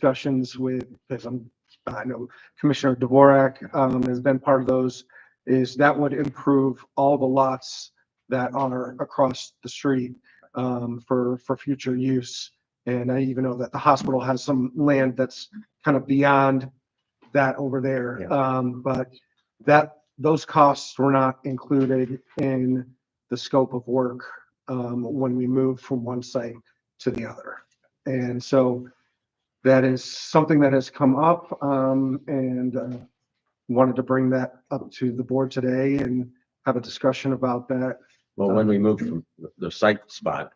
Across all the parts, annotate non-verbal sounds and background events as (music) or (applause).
discussions with, as I'm, I know Commissioner Dvorak, um, has been part of those, is that would improve all the lots that are across the street, um, for, for future use. And I even know that the hospital has some land that's kind of beyond that over there. Um, but that, those costs were not included in the scope of work, um, when we moved from one site to the other. And so that is something that has come up, um, and, uh, wanted to bring that up to the board today and have a discussion about that. Well, when we moved from the- the site spot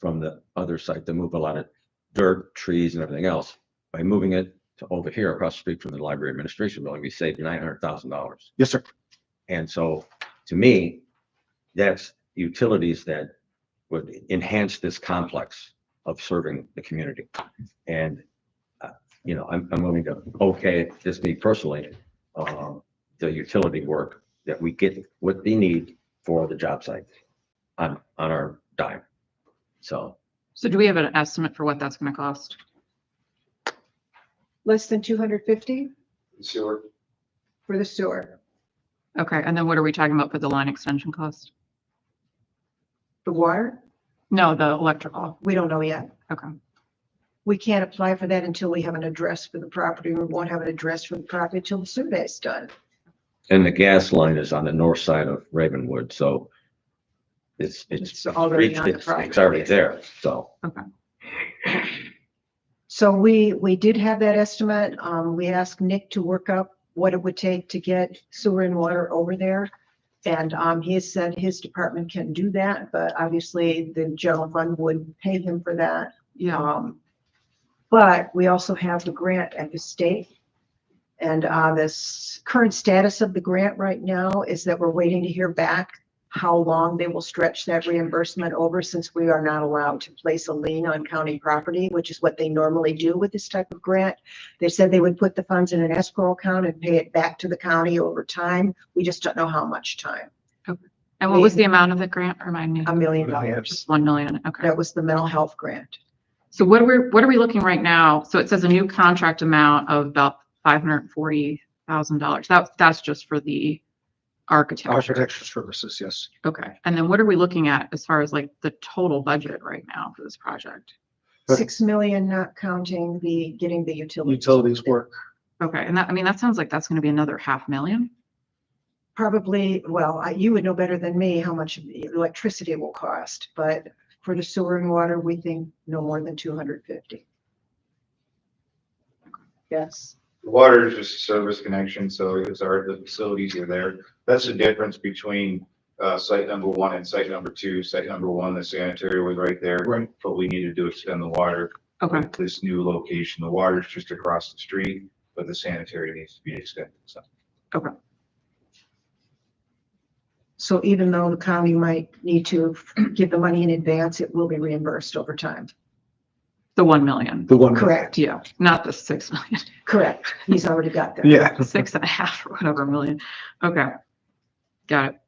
from the other site, they moved a lot of dirt, trees and everything else. By moving it to over here across the street from the library administration building, we saved nine hundred thousand dollars. Yes, sir. And so to me, that's utilities that would enhance this complex of serving the community. And, uh, you know, I'm, I'm willing to, okay, just me personally, um, the utility work that we get what they need for the job site on, on our dime. So So do we have an estimate for what that's gonna cost? Less than two hundred fifty Sewer, for the sewer, Okay, and then what are we talking about for the line extension cost? the water, No, the electrical. we don't know yet. Okay, We can't apply for that until we have an address for the property. We won't have an address for the property until the survey's done. And the gas line is on the north side of Ravenwood, so it's, it's, It's already on the it's property. it's already there, so. So we, we did have that estimate. Um, we asked Nick to work up what it would take to get sewer and water over there. And, um, he has said his department can do that, but obviously the general fund would pay him for that. yeah, Um, but we also have the grant at the state. And, uh, this current status of the grant right now is that we're waiting to hear back how long they will stretch that reimbursement over since we are not allowed to place a lien on county property, which is what they normally do with this type of grant. They said they would put the funds in an escrow account and pay it back to the county over time. We just don't know how much time. and what was the amount of the grant, remind me? A million dollars. Just one million, okay. That was the mental health grant. So what are we, what are we looking right now? So it says a new contract amount of about five hundred and forty thousand dollars. That, that's just for the architecture. Architecture services, yes. Okay, and then what are we looking at as far as like the total budget right now for this project? Right. Six million, not counting the, getting the utilities. Utilities work. Okay, and that, I mean, that sounds like that's gonna be another half million? Probably, well, I- you would know better than me how much the electricity will cost, but for the sewer and water, we think no more than two hundred fifty. Yes. the water is just a service connection, so it's our, the facilities are there. That's the difference between, uh, site number one and site number two. Site number one, the sanitary was right there. Right. But we needed to extend the water. Okay, with This new location, the water's just across the street, but the sanitary needs to be extended, so. So even though the county might need to give the money in advance, it will be reimbursed over time. the one million. The one. Correct, Yeah, not the six million, correct. He's already got that. Yeah. (laughs) six and a half or whatever million. Okay. Got it.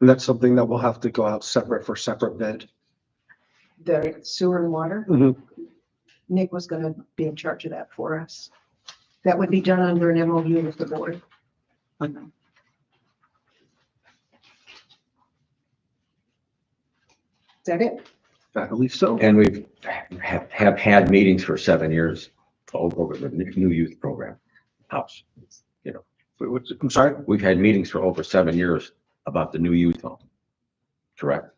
And that's something that will have to go out separate for separate bid. The sewer and water, Nick was gonna be in charge of that for us. That would be done under an MOU with the board. Is that it? I believe so. And we've have, have had meetings for seven years over over the new youth program house. Wait, what's- I'm sorry. We've had meetings for over seven years about the new youth home. Correct?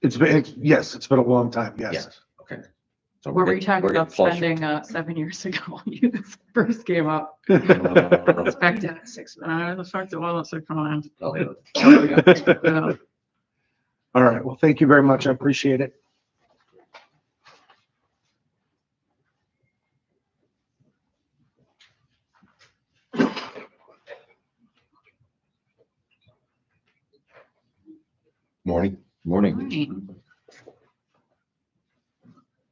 It's been, it's- yes, it's been a long time. Yes. Okay. So What we're were you getting- talking we're about getting closer. spending, uh, seven years ago (laughs) when you first came up? (laughs) No, Back to- Done at Six months. Uh, the fact that, well, that's like, (laughs) come on. no, no, no, no. All Uh, right. Well, thank you very much. I appreciate it. Morning, right. morning.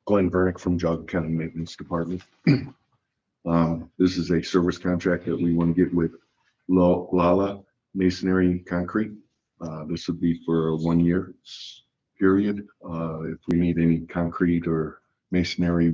Glenn Vernick from Jog County Maintenance Department. (clears throat) Um, this is a service contract that we want to get with Lo- Lala Masonry and Concrete. Uh, this would be for a one-year period. Uh, if we need any concrete or Masonry